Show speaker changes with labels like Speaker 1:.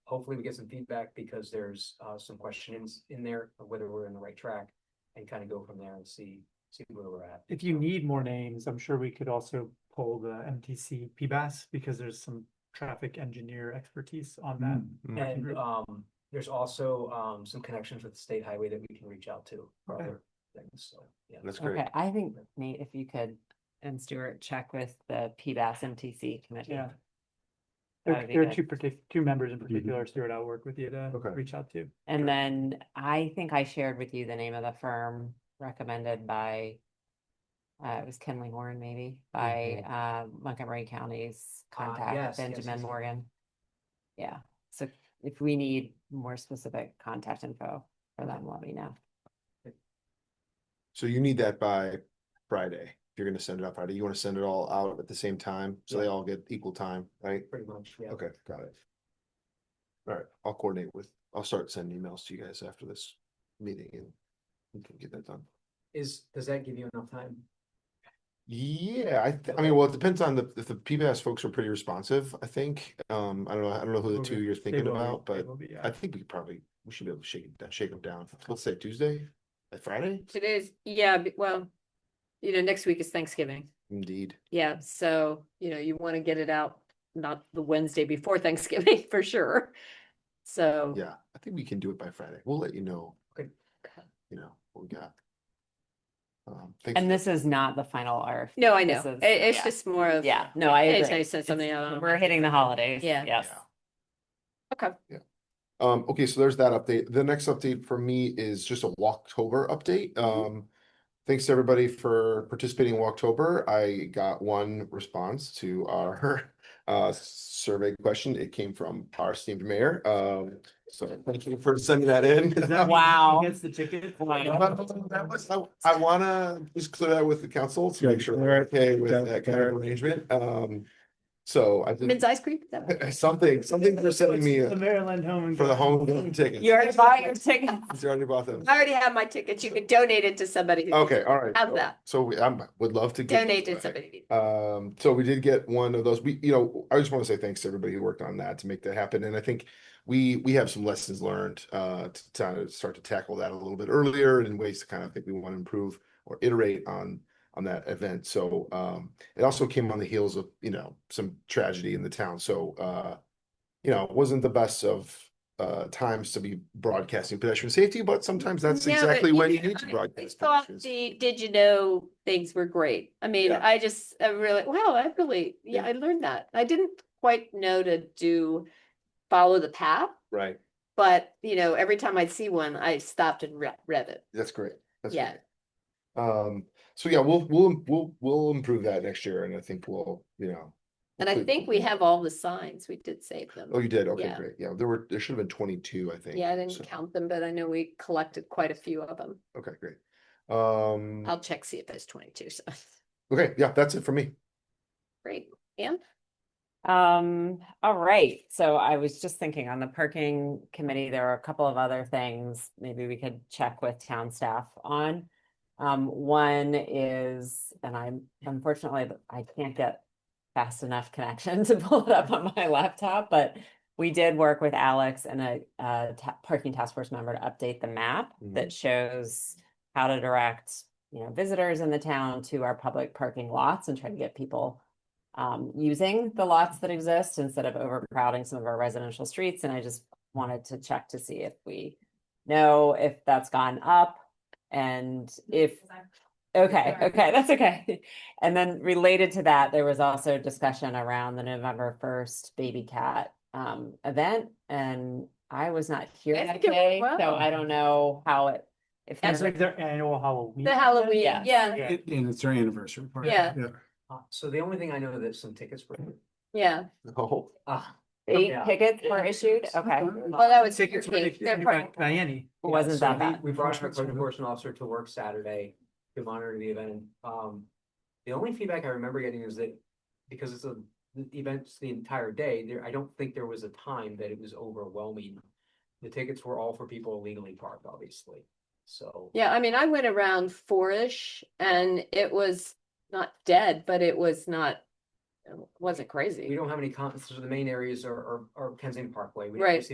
Speaker 1: hopefully we get some feedback because there's uh some questions in there of whether we're in the right track. And kind of go from there and see, see where we're at.
Speaker 2: If you need more names, I'm sure we could also pull the MTC PBAS because there's some traffic engineer expertise on that.
Speaker 3: Hmm.
Speaker 2: working
Speaker 1: And
Speaker 2: group.
Speaker 1: um, there's also um some connections with the state highway that we can reach out to for
Speaker 2: Okay.
Speaker 1: other things, so, yeah.
Speaker 3: That's great.
Speaker 4: Okay, I think Nate, if you could, and Stuart, check with the PBAS MTC committee.
Speaker 2: Yeah.
Speaker 4: That
Speaker 2: There
Speaker 4: would be
Speaker 2: there are
Speaker 4: good.
Speaker 2: two partic- two members in particular, Stuart, I'll work with you to
Speaker 3: Mm-hmm. Okay.
Speaker 2: reach out to.
Speaker 4: And then I think I shared with you the name of the firm recommended by, uh, it was Kenley Horn maybe, by, uh, Montgomery County's
Speaker 1: Mm-hmm. Ah,
Speaker 4: contact,
Speaker 1: yes, yes, yes,
Speaker 4: Benjamin
Speaker 1: yes.
Speaker 4: Morgan. Yeah, so if we need more specific contact info for them, let me know.
Speaker 3: So you need that by Friday. If you're gonna send it out Friday, you wanna send it all out at the same time, so they
Speaker 1: Yeah.
Speaker 3: all get equal time, right?
Speaker 1: Pretty much, yeah.
Speaker 3: Okay, got it. All right, I'll coordinate with, I'll start sending emails to you guys after this meeting and we can get that done.
Speaker 1: Is, does that give you enough time?
Speaker 3: Yeah, I, th- I mean, well, it depends on the, if the PBS folks are pretty responsive, I think. Um, I don't know, I don't know who the
Speaker 2: Okay,
Speaker 3: two you're
Speaker 2: they
Speaker 3: thinking
Speaker 2: will be-
Speaker 3: about,
Speaker 2: they
Speaker 3: but
Speaker 2: will be, yeah.
Speaker 3: I think we could probably, we should be able to shake it, down- shake them down. Let's say Tuesday, Uh, Friday?
Speaker 5: Today's, yeah, b- well, you know, next week is Thanksgiving.
Speaker 3: Indeed.
Speaker 5: Yeah, so, you know, you want to get it out, not the Wednesday before Thanksgiving for sure. So,
Speaker 3: Yeah, I think we can do it by Friday. We'll let you know.
Speaker 1: Okay.
Speaker 5: Okay.
Speaker 3: You know, what we got. Um, thanks.
Speaker 4: And this is not the final RFP.
Speaker 5: no, I know.
Speaker 4: This is-
Speaker 5: It, it's
Speaker 4: yeah.
Speaker 5: just more of.
Speaker 4: Yeah, no, I
Speaker 5: Anytime you
Speaker 4: agree.
Speaker 5: send something out.
Speaker 4: It's-
Speaker 5: on-
Speaker 4: We're hitting the holidays.
Speaker 5: Yeah.
Speaker 4: Yes.
Speaker 3: Yeah.
Speaker 5: Okay.
Speaker 3: Um, okay, so there's that update. The next update for me is just a Walktober update. Um, thanks to everybody for participating in Walktober. I got one response to our uh survey question. It came from our esteemed mayor. Um, so thank you for sending that in.
Speaker 2: Does that mean he
Speaker 4: Wow.
Speaker 2: Gets the ticket.
Speaker 3: But that was- I I wanna just clear that with the council to make sure they're okay with that kind of arrangement. Um, so I
Speaker 5: Men's
Speaker 3: did
Speaker 5: ice cream? Is that what-
Speaker 3: something, something for sending me uh,
Speaker 2: The Maryland home. and
Speaker 3: for the
Speaker 2: Garden.
Speaker 3: home game tickets.
Speaker 4: You already bought your tickets.
Speaker 3: You already bought them.
Speaker 5: I already have my tickets. You can donate it to somebody. who-
Speaker 3: Okay, all right.
Speaker 5: How's that?
Speaker 3: So we, I would love to. get
Speaker 5: Donate to
Speaker 3: those back.
Speaker 5: somebody.
Speaker 3: Um, so we did get one of those. We, you know, I just want to say thanks to everybody who worked on that to make that happen. And I think we, we have some lessons learned, uh, to, to start to tackle that a little bit earlier and ways to kind of think we want to improve or iterate on, on that event. So, um, it also came on the heels of, you know, some tragedy in the town. So, uh, you know, it wasn't the best of, uh, times to be broadcasting pedestrian safety, but sometimes that's
Speaker 5: No, but
Speaker 3: exactly
Speaker 5: you
Speaker 3: when you
Speaker 5: know,
Speaker 3: need to
Speaker 5: I- I
Speaker 3: broadcast.
Speaker 5: thought
Speaker 3: pedestrian safety.
Speaker 5: The, did you know things were great? I mean,
Speaker 3: Yeah.
Speaker 5: I just, I really, wow, I really, yeah, I learned that. I didn't quite know to do, follow the path,
Speaker 3: Right.
Speaker 5: but you know, every time I'd see one, I stopped and read, read it.
Speaker 3: That's great. That's
Speaker 5: Yeah.
Speaker 3: great. Um, so yeah, we'll, we'll, we'll, we'll improve that next year and I think we'll, you know.
Speaker 5: And I
Speaker 3: hopefully-
Speaker 5: think we have all the signs. We did save them.
Speaker 3: Oh, you did? Okay,
Speaker 5: yeah.
Speaker 3: great. Yeah, there were, there should have been twenty-two, I think.
Speaker 5: Yeah, I
Speaker 3: so-
Speaker 5: didn't count them, but I know we collected quite a few of them.
Speaker 3: Okay, great. Um,
Speaker 5: I'll check, see if there's twenty-two. So,
Speaker 3: okay, yeah, that's it for me.
Speaker 5: great.
Speaker 4: Um, all right, so I was just thinking on the parking committee, there are a couple of other things maybe we could check with town staff on. Um, one is, and I'm unfortunately, I can't get fast enough connection to pull it up on my laptop, but we did work with Alex and a, a ta- parking task force member to update the map
Speaker 3: Mhm.
Speaker 4: that shows how to direct, you know, visitors in the town to our public parking lots and try to get people um, using the lots that exist instead of overcrowding some of our residential streets. And I just wanted to check to see if we know if that's gone up and if, okay,
Speaker 5: Sorry.
Speaker 4: okay, that's okay. And then related to that, there was also discussion around the November first baby cat um, event and I was not here
Speaker 5: I
Speaker 4: that
Speaker 5: think it
Speaker 4: day,
Speaker 5: went
Speaker 4: so
Speaker 5: well.
Speaker 4: I don't know how it, if.
Speaker 2: That's
Speaker 4: there's-
Speaker 2: like their annual Halloween.
Speaker 5: The Halloween,
Speaker 4: yeah.
Speaker 5: yeah,
Speaker 2: Yeah.
Speaker 6: It- And it's their anniversary party.
Speaker 5: Yeah.
Speaker 1: Uh, so the only thing I know that some tickets were,
Speaker 2: Mm-hmm.
Speaker 5: yeah.
Speaker 3: Oh,
Speaker 1: uh,
Speaker 4: Eight
Speaker 1: Yeah.
Speaker 4: tickets were issued, okay.
Speaker 5: Well, that was.
Speaker 2: Tickets were
Speaker 5: okay,
Speaker 2: issued
Speaker 5: they're
Speaker 2: by
Speaker 5: part-
Speaker 2: Diane.
Speaker 4: Wasn't that bad.
Speaker 1: we brought our code enforcement officer to work Saturday to monitor the event. Um, the only feedback I remember getting is that because it's a, the event's the entire day, there, I don't think there was a time that it was overwhelming. The tickets were all for people illegally parked, obviously, so.
Speaker 5: Yeah, I mean, I went around four-ish and it was not dead, but it was not, it wasn't crazy.
Speaker 1: We don't have any comments, so the main areas are, are, are Kensington Parkway. We don't
Speaker 5: Right.
Speaker 1: see